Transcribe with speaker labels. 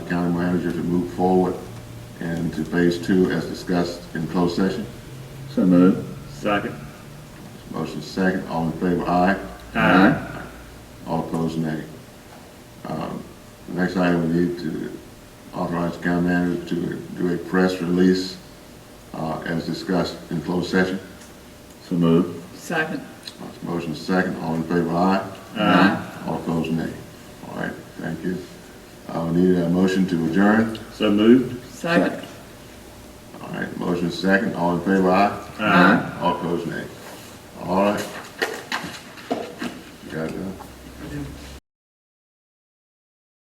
Speaker 1: manager to move forward and to phase two as discussed in closed session.
Speaker 2: So moved.
Speaker 3: Second.
Speaker 1: Motion second, all in favor, aye. All opposed, nay. Um, The next item, we need to authorize the county manager to do a press release uh, as discussed in closed session.
Speaker 2: So moved.
Speaker 4: Second.
Speaker 1: Motion second, all in favor, aye. Aye. All opposed, nay. All right, thank you. Uh, We need a motion to adjourn.
Speaker 3: So moved.
Speaker 4: Second.
Speaker 1: All right, motion second, all in favor, aye. All opposed, nay. All right,